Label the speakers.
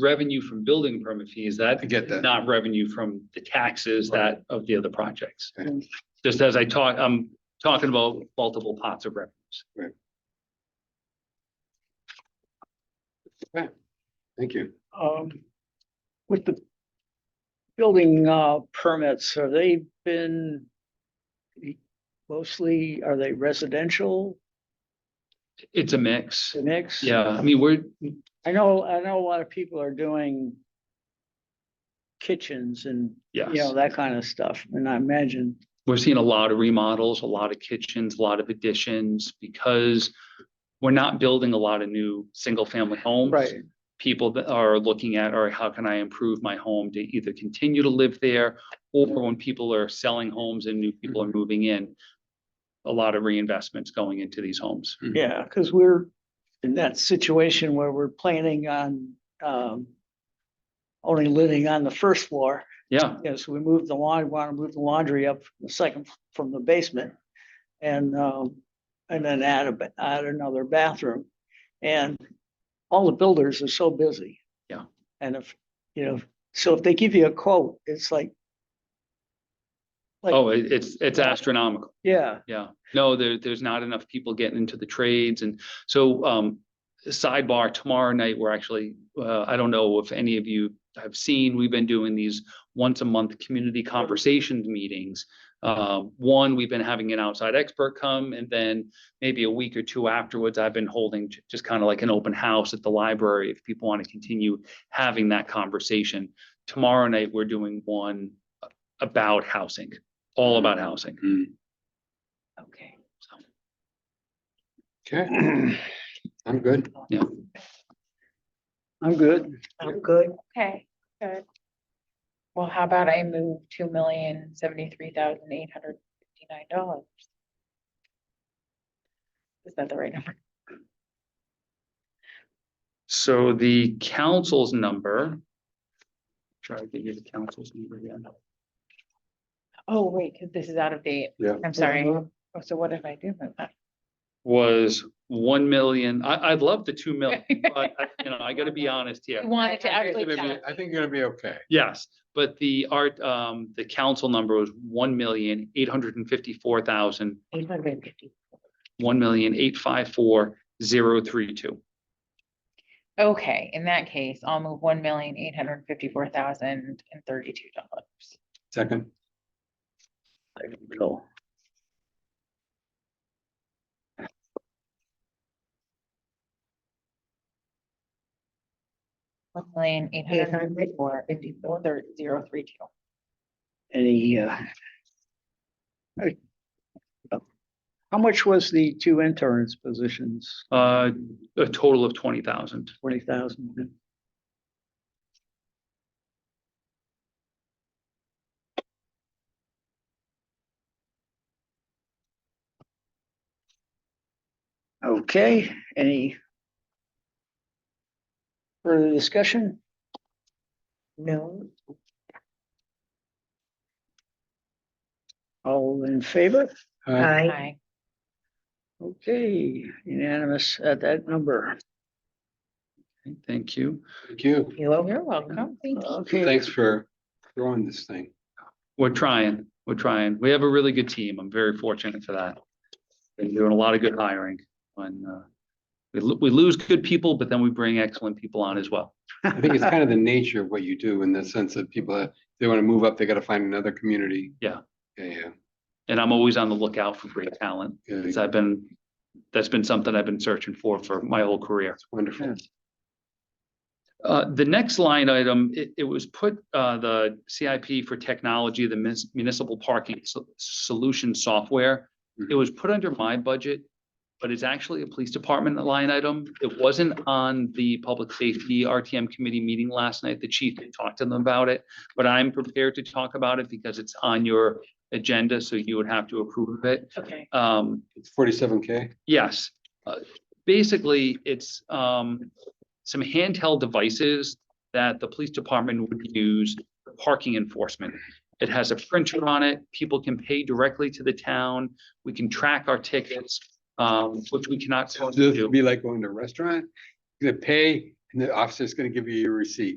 Speaker 1: revenue from building permit fees, that
Speaker 2: I get
Speaker 1: is
Speaker 2: that.
Speaker 1: not revenue from the taxes that of the other projects.
Speaker 2: Okay.
Speaker 1: Just as I talk, I'm talking about multiple pots of revenues.
Speaker 2: Thank you.
Speaker 3: um, with the building, uh, permits, have they been mostly, are they residential
Speaker 1: It's a mix.
Speaker 3: to mix?
Speaker 1: Yeah, I mean, we're,
Speaker 3: I know, I know a lot of people are doing kitchens and, you know,
Speaker 1: yes,
Speaker 3: that kind of stuff, and I imagine,
Speaker 1: we're seeing a lot of remodels, a lot of kitchens, a lot of additions because we're not building a lot of new single-family homes.
Speaker 3: right,
Speaker 1: people that are looking at, all right, how can I improve my home to either continue to live there? Or when people are selling homes and new people are moving in, a lot of reinvestments going into these homes.
Speaker 3: yeah, because we're in that situation where we're planning on, um, only living on the first floor,
Speaker 1: Yeah,
Speaker 3: Yeah, so we moved the laundry, want to move the laundry up the second f- from the basement. And, um, and then add a, ba- add another bathroom. And all the builders are so busy.
Speaker 1: Yeah.
Speaker 3: And if, you know, so if they give you a quote, it's like,
Speaker 1: oh, it- it's, it's astronomical,
Speaker 3: yeah,
Speaker 1: yeah. No, there, there's not enough people getting into the trades and so, um, sidebar, tomorrow night, we're actually, uh, I don't know if any of you have seen, we've been doing these once a month community conversations meetings. Um, one, we've been having an outside expert come and then maybe a week or two afterwards, I've been holding j- just kind of like an open house at the library if people want to continue having that conversation. Tomorrow night, we're doing one about housing, all about housing.
Speaker 2: Mm.
Speaker 3: okay.
Speaker 2: Okay. I'm good.
Speaker 3: I'm good. I'm good.
Speaker 4: Okay, good. Well, how about I move two million seventy-three thousand eight hundred fifty-nine dollars? Is that the right number?
Speaker 1: So the council's number. Try to give you the council's number again.
Speaker 4: Oh, wait, 'cause this is out of date.
Speaker 2: Yeah.
Speaker 4: I'm sorry. Oh, So what did I do? with that?
Speaker 1: Was one million, I, I'd love the two million, but I- you know, I gotta be honest here.
Speaker 4: We wanted to
Speaker 2: I think
Speaker 4: actually.
Speaker 2: you're gonna be- I
Speaker 4: tally.
Speaker 2: think you're gonna be okay.
Speaker 1: Yes, but the art, um, the council number was one million, eight hundred and fifty-four thousand,
Speaker 4: Eight hundred and fifty.
Speaker 1: one million, eight five four, zero three two.
Speaker 4: Okay, in that case, I'll move one million eight hundred and fifty-four thousand and thirty-two dollars.
Speaker 2: Second.
Speaker 3: Go.
Speaker 4: One million eight hundred and fifty-four, fifty-four, thirty, zero, three, two.
Speaker 3: Any, uh, I- uh, how much was the two interns positions?
Speaker 1: Uh, a total of twenty thousand.
Speaker 3: Forty thousand? Okay, any further discussion?
Speaker 4: No.
Speaker 3: All in favor?
Speaker 2: Uh,
Speaker 4: Aye.
Speaker 3: Okay, unanimous at that number.
Speaker 1: Thank you.
Speaker 2: Thank you.
Speaker 4: You're welcome. Thank you.
Speaker 3: Okay,
Speaker 2: Thanks for throwing this thing.
Speaker 1: We're trying, we're trying. We have a really good team. I'm very fortunate for that. Been doing a lot of good hiring when, uh, we, lo- we lose good people, but then we bring excellent people on as well.
Speaker 2: I think it's kind of the nature of what you do in the sense that people, uh, they want to move up, they gotta find another community.
Speaker 1: Yeah.
Speaker 2: Yeah,
Speaker 1: And I'm always on the lookout for great talent.
Speaker 2: yeah.
Speaker 1: Cause
Speaker 2: Good.
Speaker 1: I've been, that's been something I've been searching for, for my whole career.
Speaker 2: Wonderful.
Speaker 1: Uh, the next line item, it, it was put, uh, the CIP for technology, the munis- municipal parking so- solution software. It was put under my budget, but it's actually a police department line item. It wasn't on the public safety RTM committee meeting last night. The chief talked to them about it. But I'm prepared to talk about it because it's on your agenda, so you would have to approve of it.
Speaker 4: Okay.
Speaker 1: Um,
Speaker 2: It's forty-seven K.
Speaker 1: Yes, Uh, basically, it's um some handheld devices that the police department would use for parking enforcement. It has a printer on it. People can pay directly to the town. We can track our tickets, um, which we cannot.
Speaker 2: This would be like going to a restaurant, you gotta pay, and And the officer's gonna give you your receipt.